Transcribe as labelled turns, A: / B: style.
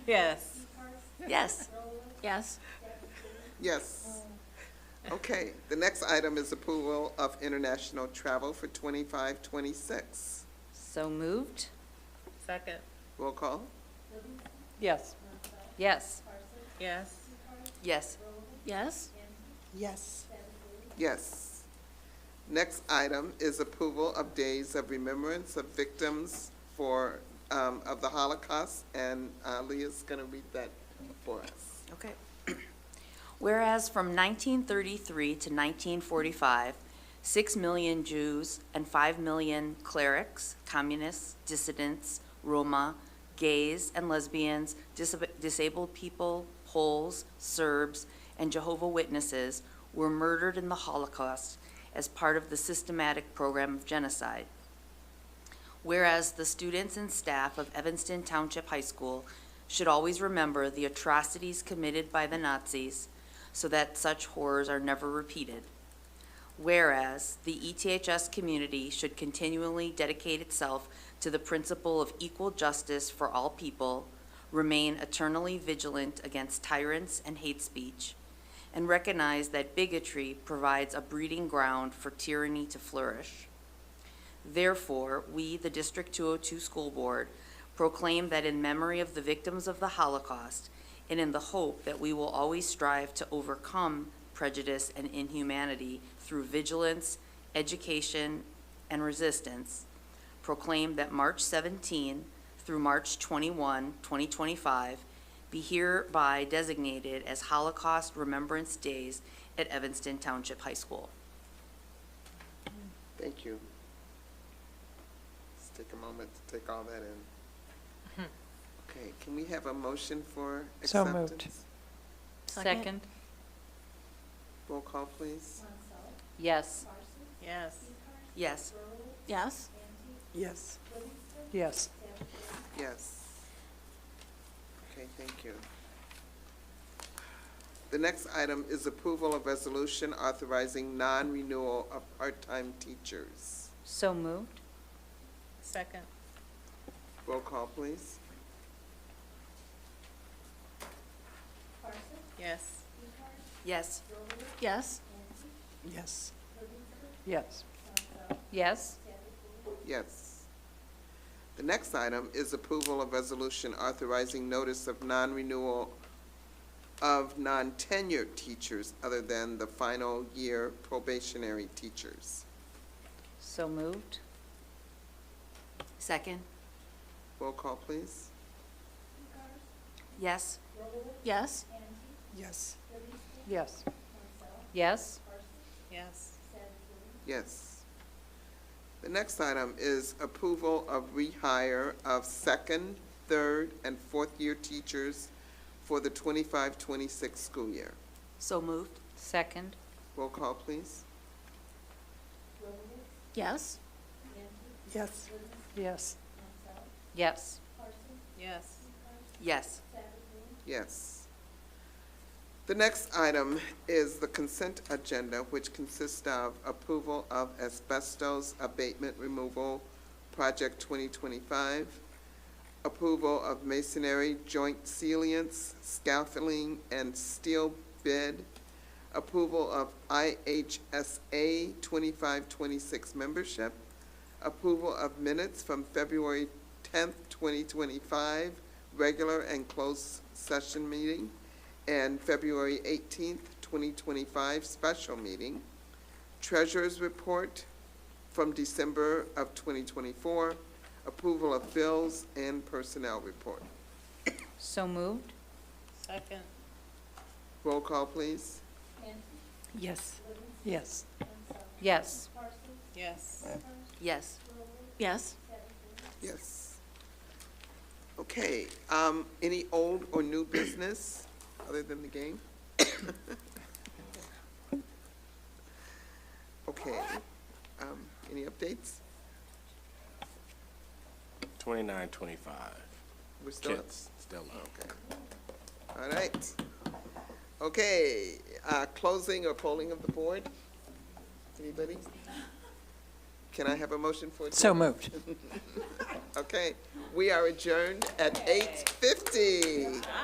A: Yes.
B: Yes. Yes.
C: Yes. Okay, the next item is approval of international travel for twenty-five, twenty-six.
B: So moved?
A: Second.
C: Roll call?
A: Yes.
B: Yes.
A: Yes.
B: Yes. Yes?
D: Yes,
C: Yes. Next item is approval of days of remembrance of victims for, um, of the Holocaust, and uh, Leah's gonna read that for us.
B: Okay. Whereas from 1933 to 1945, 6 million Jews and 5 million clerics, communists, dissidents, Roma, gays and lesbians, disab- disabled people, Poles, Serbs, and Jehovah Witnesses were murdered in the Holocaust as part of the systematic program of genocide. Whereas the students and staff of Evanston Township High School should always remember the atrocities committed by the Nazis so that such horrors are never repeated. Whereas the E ETHS community should continually dedicate itself to the principle of equal justice for all people, remain eternally vigilant against tyrants and hate speech, and recognize that bigotry provides a breeding ground for tyranny to flourish. Therefore, we, the District 202 School Board, proclaim that in memory of the victims of the Holocaust, and in the hope that we will always strive to overcome prejudice and inhumanity through vigilance, education, and resistance, proclaim that March 17 through March 21, 2025, be hereby designated as Holocaust Remembrance Days at Evanston Township High School.
C: Thank you. Let's take a moment to take all that in. Okay, can we have a motion for
D: So
C: acceptance?
D: moved.
A: Second.
C: Roll call, please.
B: Yes.
A: Yes.
B: Yes.
E: Yes,
D: yes, yes,
C: Yes. Okay, thank you. The next item is approval of resolution authorizing non-renewal of part-time teachers.
B: So moved?
A: Second.
C: Roll call, please.
A: Yes.
E: yes,
B: Yes.
D: yes, yes,
B: Yes.
C: Yes. The next item is approval of resolution authorizing notice of non-renewal of non-tenured teachers other than the final year probationary teachers.
B: So moved. Second.
C: Roll call, please.
B: Yes.
E: yes,
D: yes, yes,
B: Yes.
A: Yes.
C: Yes. The next item is approval of rehire of second, third, and fourth-year teachers for the 25-26 school year.
B: So moved. Second.
C: Roll call, please.
E: yes,
D: yes, yes,
B: Yes.
A: Yes.
B: Yes.
C: Yes. The next item is the consent agenda, which consists of approval of asbestos abatement removal project twenty twenty-five, approval of masonry joint salience, scaffolding, and steel bid, approval of IHSA twenty-five twenty-six membership, approval of minutes from February tenth, twenty twenty-five, regular and closed session meeting, and February eighteenth, twenty twenty-five, special meeting. Treasurer's report from December of twenty twenty-four, approval of bills and personnel report.
B: So moved.
A: Second.
C: Roll call, please.
D: yes, yes,
B: Yes.
A: Yes.
B: Yes.
E: yes,
C: Yes. Okay, um, any old or new business other than the game? Okay, um, any updates?
F: 29, 25.
C: We're still,
F: Kids still out.
C: all right. Okay, uh, closing or polling of the board? Anybody? Can I have a motion for adjournment?
D: so moved.
C: Okay, we are adjourned at eight fifty.